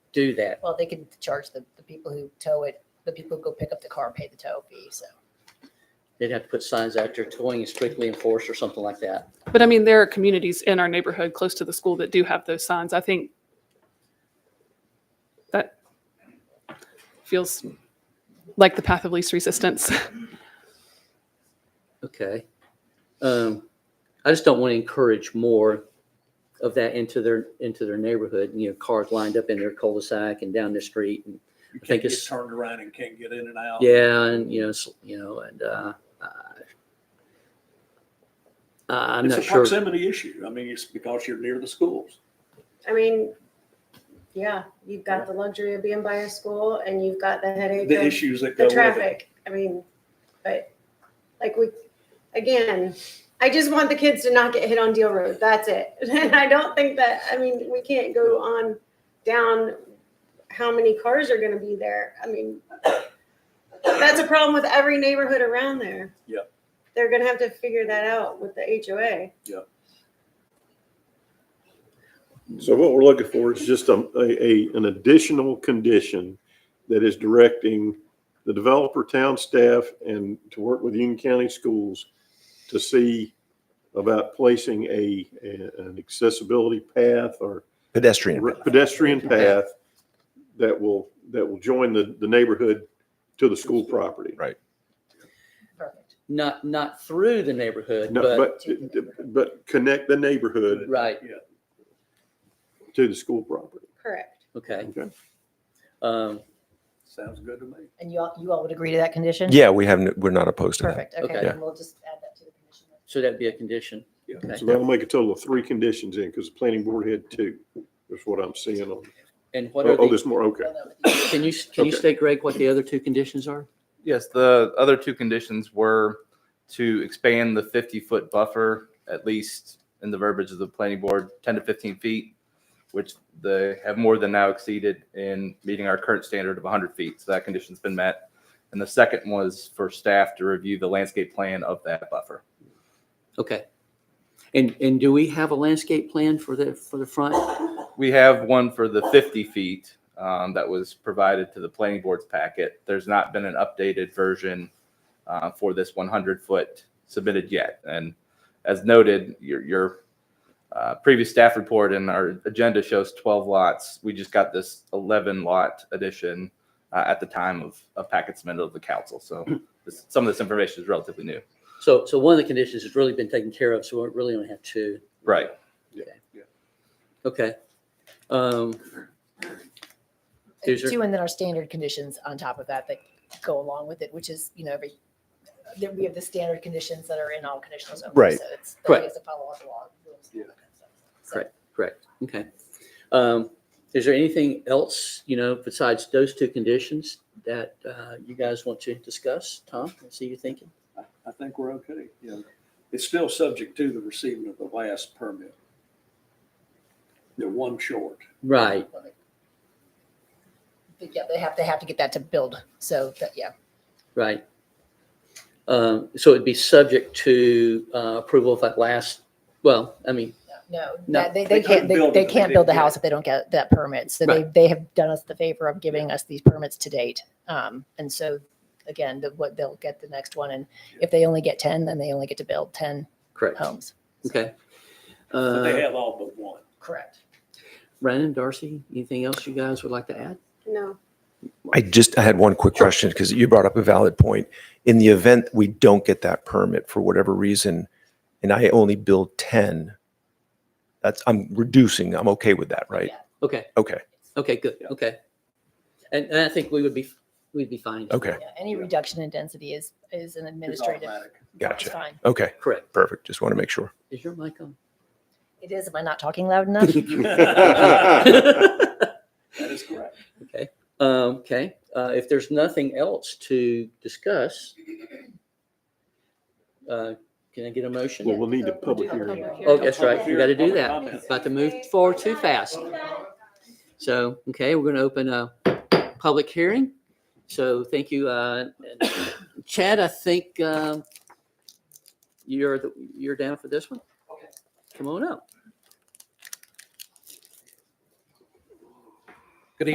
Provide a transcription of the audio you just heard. do that. Well, they can charge the, the people who tow it, the people who go pick up the car, pay the tow fee, so. They'd have to put signs out there, towing is strictly enforced or something like that. But I mean, there are communities in our neighborhood close to the school that do have those signs. I think that feels like the path of least resistance. Okay. Um, I just don't want to encourage more of that into their, into their neighborhood, you know, cars lined up in their cul-de-sac and down the street and You I think can't get it's- turned around and can't get in and out. Yeah, and you know, s- you know, and uh, uh, I'm It's a not sure. proximity issue. I mean, it's because you're near the schools. I mean, yeah, you've got the luxury of being by a school and you've got the headache The of issues that go the with it. traffic. I mean, but like we, again, I just want the kids to not get hit on Deal Road. That's it. And I don't think that, I mean, we can't go on down how many cars are going to be there. I mean, that's a problem with every neighborhood around there. Yep. They're going to have to figure that out with the HOA. So what we're looking for is just a, a, a- an additional condition that is directing the developer, town staff, and to work with Union County Schools to see about placing a, a- an accessibility path or pedestrian. re- pedestrian path that will, that will join the, the neighborhood to the school property. Perfect. Not not through the neighborhood, No, but, but, but connect the neighborhood right. to the school property. Correct. Okay. Okay. Um, Sounds good to me. And you all, you all would agree to that condition? Yeah, we haven't, we're not opposed to that. Perfect, okay, Okay. then we'll just add that to the condition. so that'd be a condition. Yeah. Okay. So that'll make a total of three conditions in, because the planning board had two, is what I'm seeing on, And what oh, are oh, the? there's more, okay. Can you can you Okay. state, Greg, what the other two conditions are? Yes, the other two conditions were to expand the 50-foot buffer, at least in the verbiage of the planning board, 10 to 15 feet, which they have more than now exceeded in meeting our current standard of 100 feet. So that condition's been met. And the second was for staff to review the landscape plan of that buffer. Okay. And and do we have a landscape plan for the for the front? We have one for the 50 feet um, that was provided to the planning board's packet. There's not been an updated version uh, for this 100-foot submitted yet. And as noted, your, your uh, previous staff report and our agenda shows 12 lots. We just got this 11-lot addition uh, at the time of a packet submitted of the council. So this- some of this information is relatively new. So so one of the conditions has really been taken care of. So we really only have two. Right. Okay. Um, Is there- Two, and then our standard conditions on top of that that go along with it, which is, you know, every, that we have the standard conditions that are in all conditional zones. Right. So it's, Correct. that is a follow all the law. rules and all that kind of stuff. So- Correct. Correct. Okay. Um, is there anything else, you know, besides those two conditions that, uh, you guys want to discuss? Tom, I see you thinking. I, I think we're okay. Yeah. It's still subject to the receiving of the last permit. They're one short. Right. But yeah, they have, they have to get that to build, so that, yeah. Right. Um, so it'd be subject to, uh, approval of that last, well, I mean, No, No, that- they, they they couldn't can't, they, build they it if they can't build the didn't get house it. if they don't get that permit. So they, they have done us the favor of giving us these permits to date. Um, and so again, the, what they'll get the next one. And if they only get 10, then they only get to build 10 correct. homes. Okay. But they Uh, have all but one. Correct. Brandon, Darcy, anything else you guys would like to add? No. I just, I had one quick question because you brought up a valid point. In the event we don't get that permit for whatever reason, and I only build 10, that's, I'm reducing, I'm okay with that, right? Yeah. Okay. Okay, Okay, good. Yeah. Okay. And, and I think we would be, we'd be fine. okay, Yeah, Any reduction in density is, is an It's administrative. automatic. It's gotcha. fine. Okay, Correct. perfect. Just want to make sure. Is your mic on? It is. Am I not talking loud enough? That is correct. Um, Okay, uh, if there's nothing else to discuss, uh, can I get a Well, motion? we'll need a public hearing. Oh, that's right, we Public got to do hearing, public that. comment. About to move forward too fast. So, okay, we're going to open a public hearing. So thank you. uh, Chad, I think um, you're, the- you're down for this one? Come on up.